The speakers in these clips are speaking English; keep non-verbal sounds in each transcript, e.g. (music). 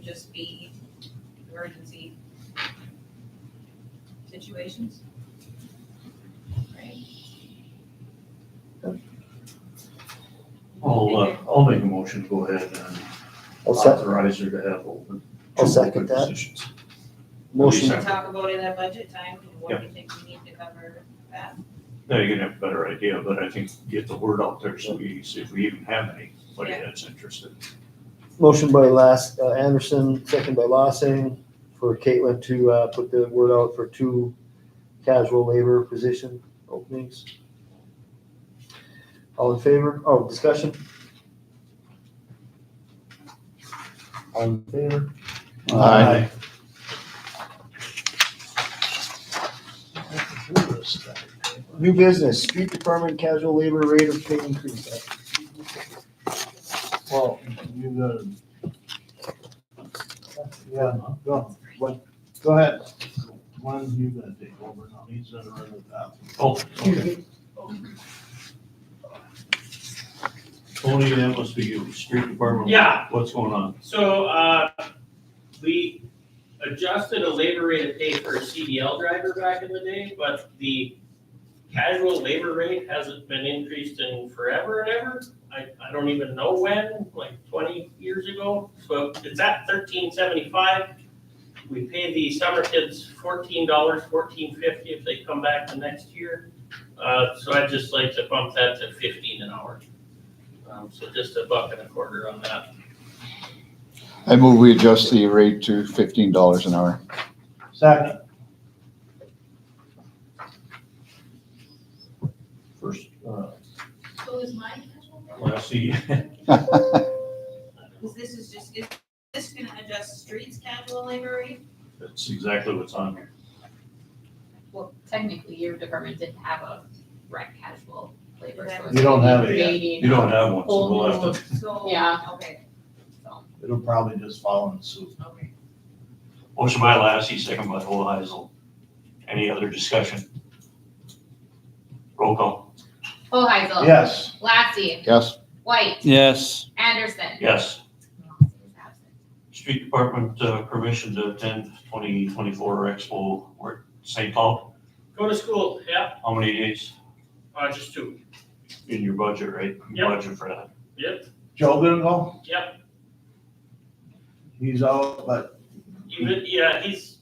just be emergency situations. Right? I'll, uh, I'll make a motion, to go ahead and I'll sec- authorize her to have open. I'll second that. Positions. motion, Can we talk about in that budget time, what you think we need to cover that? Now you're gonna have a better idea, but I think get the word out there so we, see if we even have anybody Yeah. that's interested. motion by Las, uh, Anderson, second by Lossing, for Caitlin to, uh, put the word out for two casual labor position openings. All in favor? Oh, discussion? All in favor? Aye. New business, street department casual labor rate of pay increase. Well, you got it. Yeah, no, go, what, go ahead. One's you gonna take over now, he's gonna run the top. Oh, okay. Tony, that must be you, street department. Yeah. What's going on? So, uh, we adjusted a labor rate of pay for a CDL driver back in the day, but the casual labor rate hasn't been increased in forever and ever. I, I don't even know when, like twenty years ago, so it's at thirteen seventy-five. We pay the summer kids fourteen dollars, fourteen fifty if they come back the next year. Uh, so I'd just like to bump that to fifteen an hour. Um, so just a buck and a quarter on that. I move we adjust the rate to fifteen dollars an hour. Second, First, uh, So is mine casual? (laughs) last see, Because this is just, is this gonna adjust streets casual labor rate? (laughs) that's exactly what's on here. Well, technically, your department didn't have a rec casual labor, so it's you don't have it yet. creating. You don't have one, so we'll have to, So. Yeah. Okay, It'll probably just follow in suit. okay. motion by Lassie, second by Hoheisel. Any other discussion? Roll call, Hoheisel. Yes, Lassie. Yes, White. Yes, Anderson. yes. Lassie is absent. Street Department uh, permission to attend 2024 Expo, where, St. Paul, Go to school, yeah, how many days uh, just two, in your budget, right? Yep. Budget for that. yep, Joe gonna go? yep, He's out, but even, yeah, he's,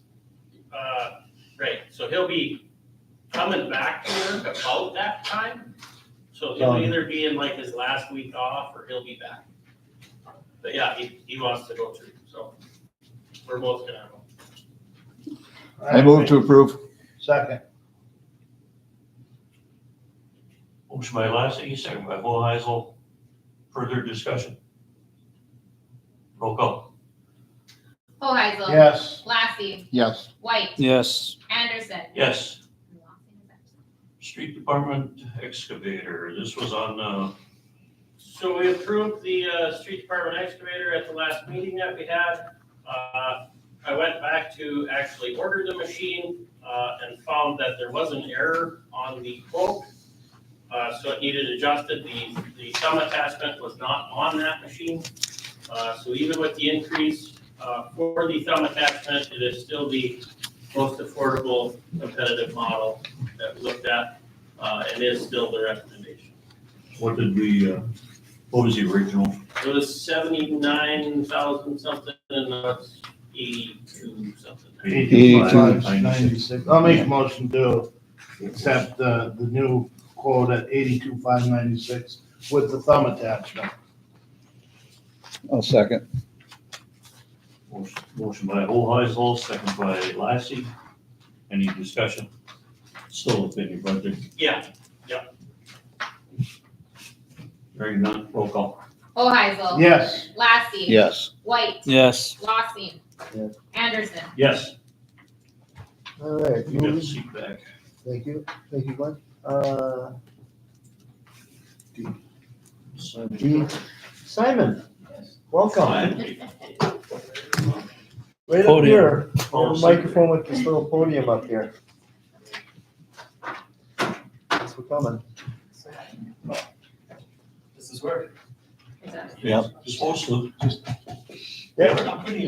uh, right, so he'll be coming back to work about that time. So he'll Um. either be in like his last week off, or he'll be back. But yeah, he, he wants to go too, so we're both gonna go. I move to approve. Second, Motion by Lassie, second by Hoheisel. Further discussion? Roll call, Hoheisel. yes, Lassie. Yes, White. yes, Anderson. yes. Lassie is absent. Street Department excavator, this was on, uh, So we approved the, uh, street department excavator at the last meeting that we had. Uh, I went back to actually order the machine, uh, and found that there was an error on the quote. Uh, so it needed adjusted, the, the thumb attachment was not on that machine. Uh, so even with the increase, uh, for the thumb attachment, it is still the most affordable competitive model that we looked at, uh, and is still the recommendation. what did we, uh, what was the original? It was seventy-nine thousand something and now it's eighty-two something. eighty-five, Eighty-two. ninety-six. I'll make a motion to accept, uh, the new quote at eighty-two, five ninety-six with the thumb attachment. I'll second. Motion- Motion by Hoheisel, second by Lassie. Any discussion? Still within your budget. Yeah, Hearing none, roll call. Hoheisel. Yes. Lassie. Yes, White. yes. Lassie. Yes. Anderson. Yes, All right, you got the moving- seat back. thank you, thank you, Glenn. Uh, D. Simon, welcome. Fine. Right up Podium. here, We have Oh, a second. microphone with this little podium up here. Thanks for coming. Is that- Yeah, Supposed to. Yeah. Pretty